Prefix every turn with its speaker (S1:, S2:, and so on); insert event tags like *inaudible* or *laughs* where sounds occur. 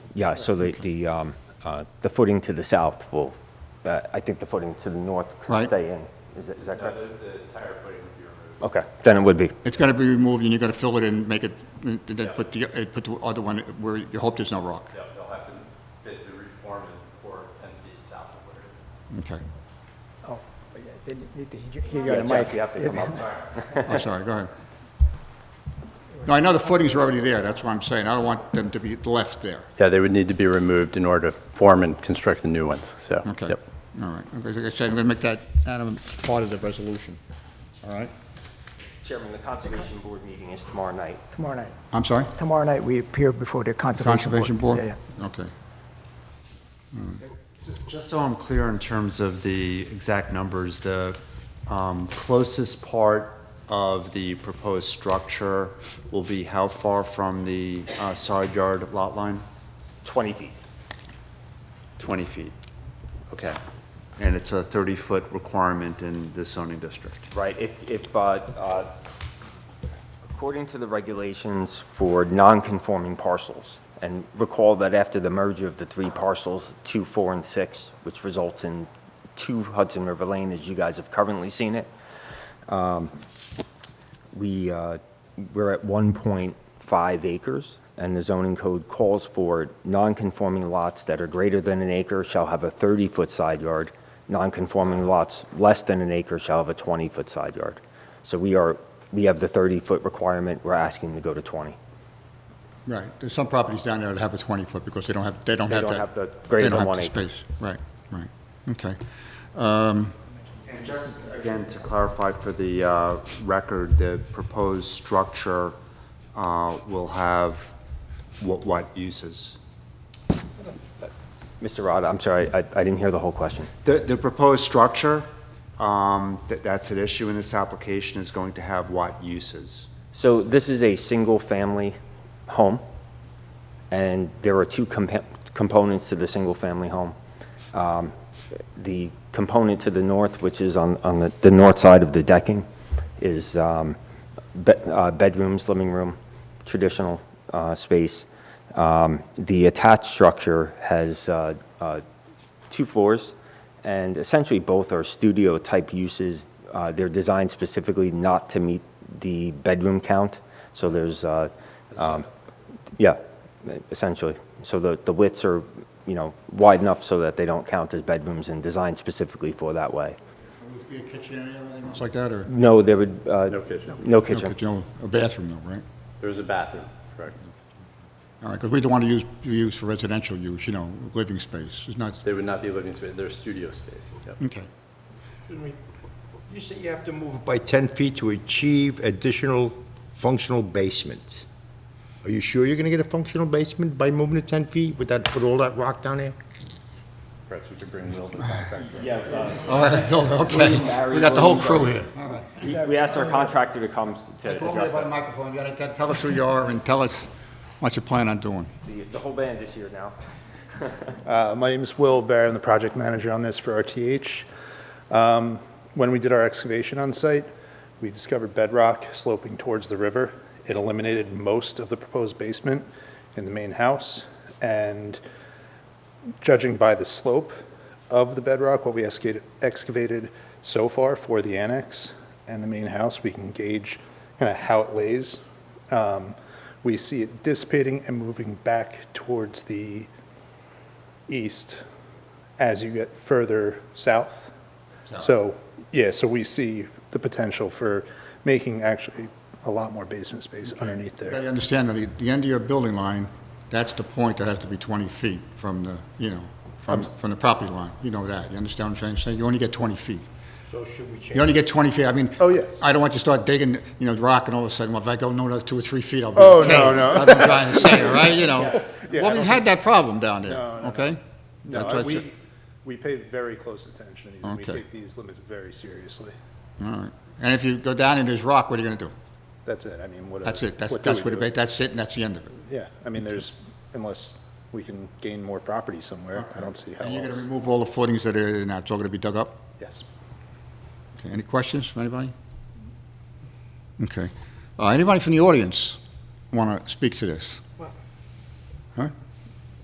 S1: Yeah, so the, the, um, uh, the footing to the south will, uh, I think the footing to the north could
S2: Right.
S1: stay in. Is that- is that
S3: No,
S1: correct?
S3: the, the tire footing would be removed.
S1: Okay, then it would be.
S2: It's got to be removed, and you got to fill it in, make it, and then put the, uh, put the other one where you hope there's no rock.
S3: They'll, they'll have to basically reform it for ten feet south of where it is.
S2: Okay.
S4: Oh, yeah, they need to hear- hear you on the
S1: Yeah,
S4: mic.
S1: Jeff, You have to come up.
S4: *laughs*
S2: I'm sorry, go ahead. No, I know the footings are already there, that's what I'm saying. I don't want them to be left there.
S5: Yeah, they would need to be removed in order to form and construct the new ones, so.
S2: Okay,
S5: yep.
S2: all right. Okay, Like I said, I'm going to make that, Adam, part of the resolution, all right?
S1: Chairman, the Conservation Board meeting is tomorrow night.
S4: Tomorrow night.
S2: I'm sorry?
S4: Tomorrow night, we appear before the Conservation Board.
S2: Conservation Board?
S4: Yeah, yeah.
S2: Okay.
S6: Just so I'm clear in terms of the exact numbers, the um, closest part of the proposed structure will be how far from the uh, side yard lot line?
S1: 20 feet.
S6: 20 feet. Okay. And it's a 30-foot requirement in the zoning district.
S1: Right, if, if, uh, uh, according to the regulations for non-conforming parcels, and recall that after the merger of the three parcels, two, four, and six, which results in two Hudson River Lane, as you guys have currently seen it, um, we, uh, we're at 1.5 acres, and the zoning code calls for non-conforming lots that are greater than an acre shall have a 30-foot side yard, non-conforming lots less than an acre shall have a 20-foot side yard. So we are, we have the 30-foot requirement, we're asking to go to 20.
S2: Right, there's some properties down there that have a 20-foot because they don't have, they don't
S1: They
S2: have that.
S1: don't have the greater
S2: they
S1: than
S2: don't have
S1: one
S2: the
S1: acre.
S2: space, right, right, okay. Um,
S6: And just, again, to clarify for the uh, record, the proposed structure uh, will have what, what uses?
S1: Mr. Rod, I'm sorry, I I didn't hear the whole question.
S6: The, the proposed structure, um, that, that's at issue in this application, is going to have what uses?
S1: So this is a single-family home, and there are two compa- components to the single-family home. Um, The component to the north, which is on, on the, the north side of the decking, is um, be- uh, bedrooms, living room, traditional uh, space. Um, The attached structure has uh, uh, two floors, and essentially both are studio-type uses. Uh, They're designed specifically not to meet the bedroom count, so there's, uh, um, yeah, essentially. So the the widths are, you know, wide enough so that they don't count as bedrooms and designed specifically for that way.
S2: Would it be a kitchen and everything else like that, or?
S1: No, there would, uh,
S5: No kitchen.
S1: no
S2: No
S1: kitchen.
S2: A bathroom though, right?
S5: There's a bathroom, correct.
S2: All right, because we don't want to use, use for residential use, you know, living space. It's not,
S5: They would not be living space, they're studio space, yep.
S2: okay.
S7: Excuse me. You say you have to move it by 10 feet to achieve additional functional basement. Are you sure you're going to get a functional basement by moving it 10 feet with that, with all that rock down there?
S5: Perhaps we could bring Will to contract.
S2: All right, Bill, okay. We got the whole crew here. All right.
S1: We asked our contractor to come to
S2: Go over there
S1: address
S2: by
S1: that.
S2: the microphone, you gotta te- tell us who you are and tell us what you plan on doing.
S1: The- The whole band is here now.
S8: Uh, My name is Will Barr. I'm the project manager on this for RTH. Um, When we did our excavation on site, we discovered bedrock sloping towards the river. It eliminated most of the proposed basement in the main house. And judging by the slope of the bedrock, what we excavated- excavated so far for the annex and the main house, we can gauge kind of how it lays. Um, We see it dissipating and moving back towards the east as you get further south. So, yeah, so we see the potential for making actually a lot more basement space underneath
S2: You
S8: there.
S2: gotta understand that the- the end of your building line, that's the point that has to be 20 feet from the, you know, from, from the property line. You know that, you understand what I'm saying? So you only get 20 feet.
S7: So should we change?
S2: You only get 20 feet, I mean.
S8: Oh, yes.
S2: I don't want you to start digging, you know, rock and all of a sudden, well, if I go no another two or three feet, I'll be
S8: Oh,
S2: okay.
S8: no, no.
S2: That's what I'm trying to say,
S8: *laughs*
S2: all right, you know?
S8: Yeah,
S2: Well, we've
S8: I don't
S2: had that problem down there,
S8: No, no, no.
S2: okay?
S8: No,
S2: That's what you-
S8: we, we pay very close attention to these, and we
S2: Okay.
S8: take these limits very seriously.
S2: All right. And if you go down and there's rock, what are you gonna do?
S8: That's it, I mean, what? uh,
S2: That's it, that's,
S8: what do
S2: that's
S8: we
S2: what,
S8: do?
S2: it- that's it, and that's the end of it.
S8: Yeah, I mean, there's, unless we can gain more property somewhere, I don't see how
S2: And you're gonna
S8: else.
S2: remove all the footings that are, now it's all gonna be dug up?
S8: Yes.
S2: Okay, any questions from anybody? Okay. Uh, Anybody from the audience want to speak to this? Huh?